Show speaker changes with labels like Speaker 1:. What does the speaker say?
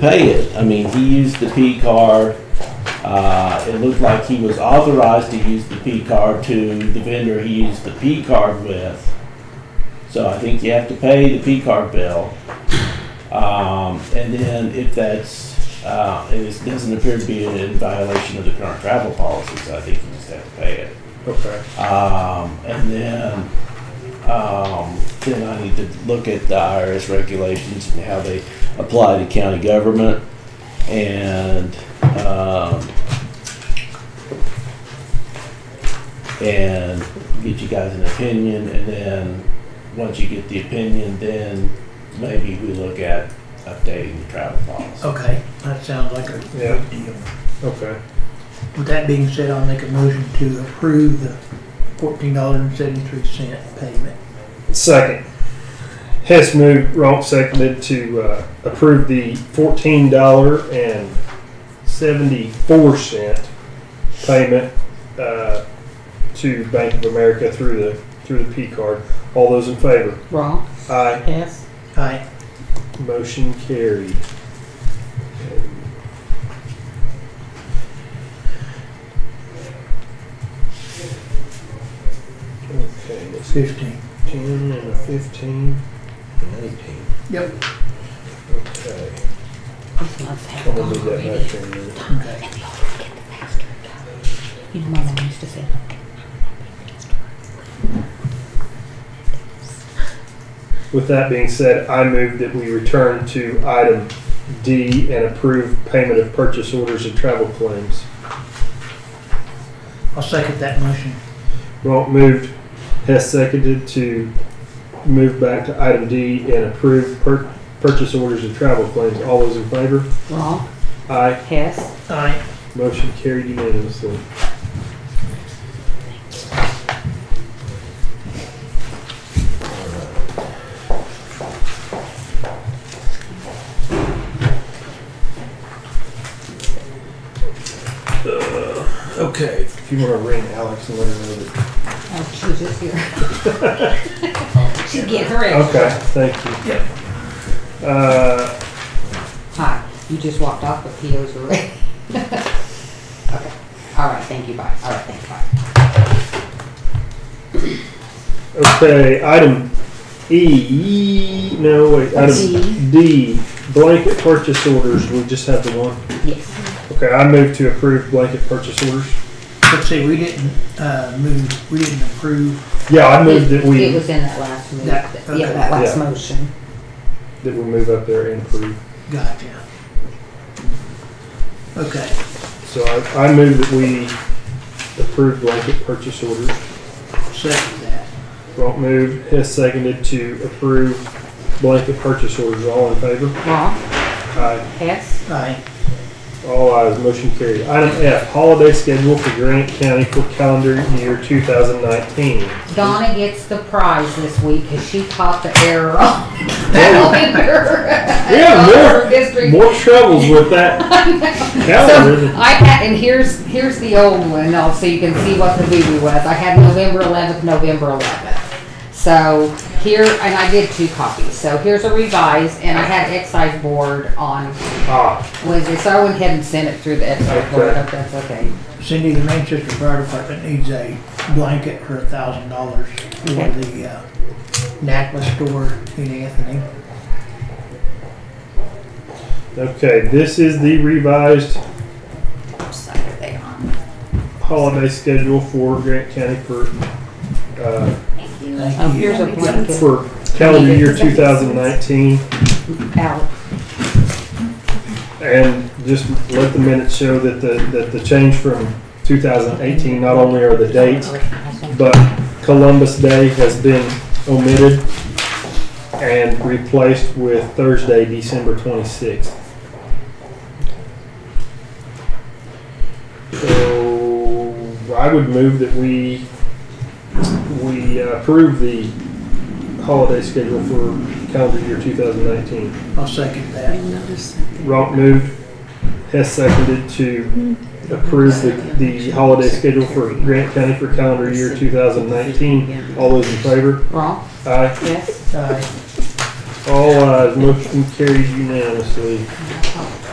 Speaker 1: pay it. I mean, he used the P card. Uh, it looked like he was authorized to use the P card to the vendor he used the P card with. So I think you have to pay the P card bill. Um, and then if that's, uh, and it doesn't appear to be in violation of the current travel policy, so I think you just have to pay it.
Speaker 2: Okay.
Speaker 1: Um, and then, um, then I need to look at the IRS regulations and how they apply to county government. And, um, and get you guys an opinion, and then, once you get the opinion, then maybe we look at updating the travel policy.
Speaker 3: Okay, that sounds like a
Speaker 2: Yeah.
Speaker 3: good deal.
Speaker 2: Okay.
Speaker 3: With that being said, I'll make a motion to approve the fourteen dollars and seventy-three cent payment.
Speaker 2: Second. Hess moved, Ronk seconded to uh, approve the fourteen dollar and seventy-four cent payment uh, to Bank of America through the through the P card. All those in favor?
Speaker 4: Wrong.
Speaker 2: Aye.
Speaker 4: Hess.
Speaker 3: Aye.
Speaker 2: Motion carried. Okay, let's see.
Speaker 3: Fifteen.
Speaker 2: 10 and a 15 and 18.
Speaker 3: Yep.
Speaker 2: Okay.
Speaker 4: This must
Speaker 2: I'm
Speaker 4: have
Speaker 2: going to
Speaker 4: gone
Speaker 2: leave that
Speaker 4: already.
Speaker 2: back there. a minute.
Speaker 3: Okay.
Speaker 4: You know, my mom used to say,
Speaker 2: With that being said, I move that we return to item D and approve payment of purchase orders and travel claims.
Speaker 3: I'll second that motion.
Speaker 2: Ronk moved, Hess seconded to move back to item D and approve per- purchase orders and travel claims. All those in favor?
Speaker 4: wrong.
Speaker 2: Aye.
Speaker 4: Hess.
Speaker 3: Aye.
Speaker 2: Motion carried unanimously. Uh, Okay. If you want to ring Alex and let her know that.
Speaker 4: Oh, she was just here. She's getting her extra.
Speaker 2: Okay, thank you. Uh,
Speaker 4: Hi, you just walked off, but POs were ready. Okay, all right, thank you, bye. All right, thank you, bye.
Speaker 2: okay, item E, no, wait, item D, blanket purchase orders, we just have the one.
Speaker 4: Yes,
Speaker 2: Okay, I move to approve blanket purchase orders.
Speaker 3: Let's see, we didn't, uh, move, we didn't approve,
Speaker 2: Yeah, I move that
Speaker 4: it
Speaker 2: we,
Speaker 4: was in that last move,
Speaker 3: That-
Speaker 4: that- yeah,
Speaker 3: okay.
Speaker 4: that last
Speaker 2: Yeah.
Speaker 4: motion.
Speaker 2: that we move up there and approve.
Speaker 3: gotcha. Okay,
Speaker 2: So I, I move that we approve blanket purchase orders.
Speaker 3: second that.
Speaker 2: Ronk moved, Hess seconded to approve blanket purchase orders. All in favor?
Speaker 4: Wrong.
Speaker 2: Aye.
Speaker 4: Hess.
Speaker 3: Aye.
Speaker 2: All ayes, motion carried. Item F, holiday schedule for Granite County for calendar year 2019.
Speaker 4: Donna gets the prize this week because she caught the error on the calendar.
Speaker 2: Yeah,
Speaker 4: All
Speaker 2: more-
Speaker 4: over district.
Speaker 2: More troubles with that calendar.
Speaker 4: So
Speaker 2: than-
Speaker 4: I had, and here's, here's the old one, now, so you can see what the boo-boo was. I had November eleventh, November eleventh. So here, and I did two copies, so here's a revised, and I had excise board on
Speaker 2: Ah,
Speaker 4: Wednesday, so I went ahead and sent it through the excise board,
Speaker 2: Okay.
Speaker 4: if that's okay.
Speaker 3: Cindy, the Manchester Fire Department needs a blanket for a thousand dollars for
Speaker 4: Okay.
Speaker 3: the, uh, NACLA store in Anthony.
Speaker 2: okay, this is the revised
Speaker 4: So there they are.
Speaker 2: holiday schedule for Grant County for, uh,
Speaker 4: Thank you.
Speaker 3: Thank
Speaker 4: Oh,
Speaker 3: you.
Speaker 4: here's a blanket,
Speaker 2: for calendar year 2019.
Speaker 4: Alex.
Speaker 2: And just let the minutes show that the, that the change from 2018, not only are the dates, but Columbus Day has been omitted and replaced with Thursday, December 26th. So I would move that we, we uh, approve the holiday schedule for calendar year 2019.
Speaker 3: I'll second that.
Speaker 2: Ronk moved, Hess seconded to approve the, the holiday schedule for Grant County for calendar year two thousand nineteen. All those in favor?
Speaker 4: Wrong,
Speaker 2: Aye.
Speaker 4: yes.
Speaker 3: Aye.
Speaker 2: All eyes, motion carries unanimously.